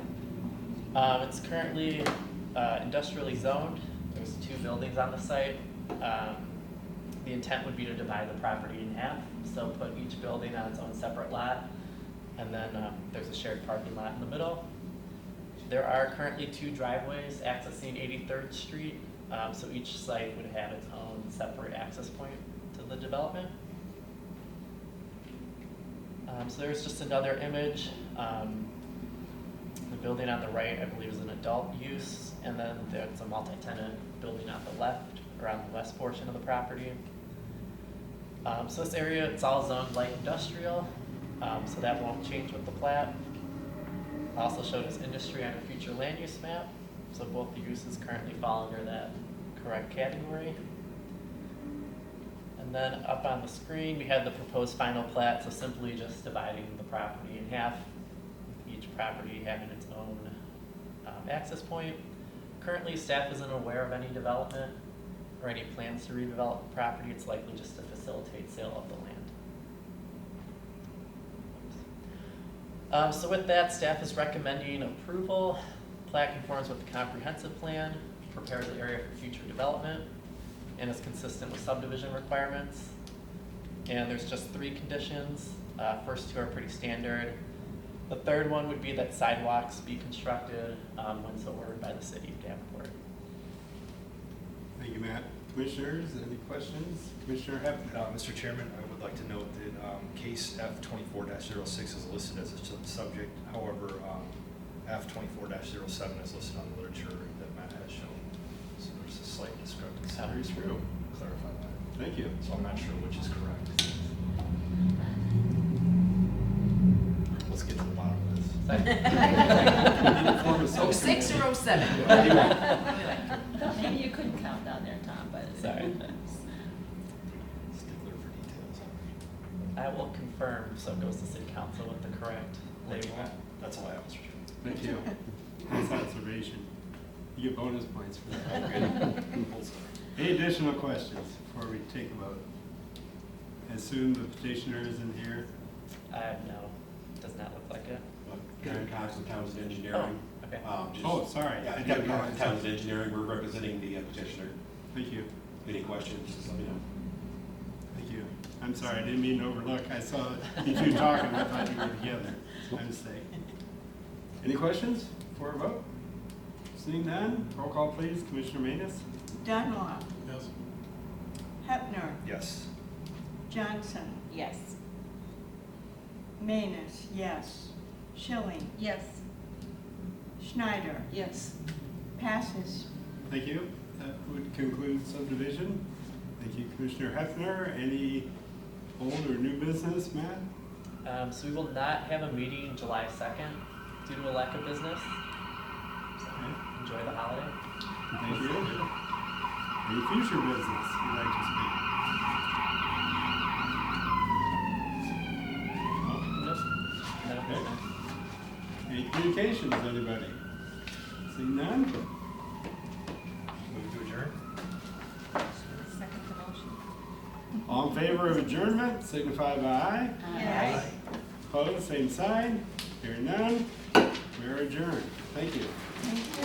Um, it's currently, uh, industrially zoned, there's two buildings on the site. Um, the intent would be to divide the property in half, so put each building on its own separate lot. And then, um, there's a shared parking lot in the middle. There are currently two driveways accessing Eighty-third Street, um, so each site would have its own separate access point to the development. Um, so there's just another image, um, the building on the right, I believe, is an adult use, and then there's a multi-tenant building on the left, around the west portion of the property. Um, so this area, it's all zoned light industrial, um, so that won't change with the plat. Also showed as industry on a future land use map, so both the uses currently fall under that correct category. And then up on the screen, we had the proposed final plat, so simply just dividing the property in half, each property having its own um, access point. Currently, staff isn't aware of any development or any plans to redevelop the property. It's likely just to facilitate sale of the land. Um, So with that, staff is recommending approval. Plat conforms with the comprehensive plan, prepares the area for future development, and is consistent with subdivision requirements. And there's just three conditions. Uh, First two are pretty standard. The third one would be that sidewalks be constructed um, when so ordered by the city of Davenport. Thank you, Matt. Commissioners, any questions? Commissioner Heffner? Uh, Mr. Chairman, I would like to note that um, case F twenty-four 6 is listed as a sub- subject. However, um, F twenty-four 7 is listed on the literature that Matt has shown. So there's a slight discrepancy. Oh. Very true. Clarify that. Thank you. So I'm not sure which is correct. Let's get to the bottom of this. So I- Oh, Six or oh seven? Maybe you couldn't count down there, Tom, but. Sorry. Stickler for details. I will confirm, so it goes to city council with the correct Thank you, label. Matt. That's all I have, Mr. Chairman. Thank you. Nice observation. You get bonus points for that. Full stop. Any additional questions before we take a vote? I assume the petitioner isn't here. I have Uh, no, does not look like it. Karen Cox with Towns Engineering. Oh, okay. Um, just- Oh, sorry. Yeah, I Kevin didn't Cox know. with Towns Engineering, we're representing the uh, petitioner. Thank you. Any questions, just let me know. Thank you. I'm sorry, I didn't mean to overlook. I saw that you two talking, I thought you were together. My mistake. Any questions for a vote? Seeing none, roll call please. Commissioner Manus? Dunlop, Yes. Hefner, Yes. Johnson, Yes. Manus, yes. Schilling, Yes. Schneider, Yes. passes. Thank you. That would conclude subdivision. Thank you, Commissioner Hefner. Any old or new business, Matt? Um, so we will not have a meeting July second due to a lack of business. So Okay, Enjoy the holiday. Thank you. Any future business you'd like to speak? No? Nope, no Okay. business. Any communications, anybody? Seeing none? Move to adjourn? Second motion. All in favor of adjournment, signify by aye. Yes. Opposed, same sign. Hearing none, we are adjourned. Thank you. Thank you.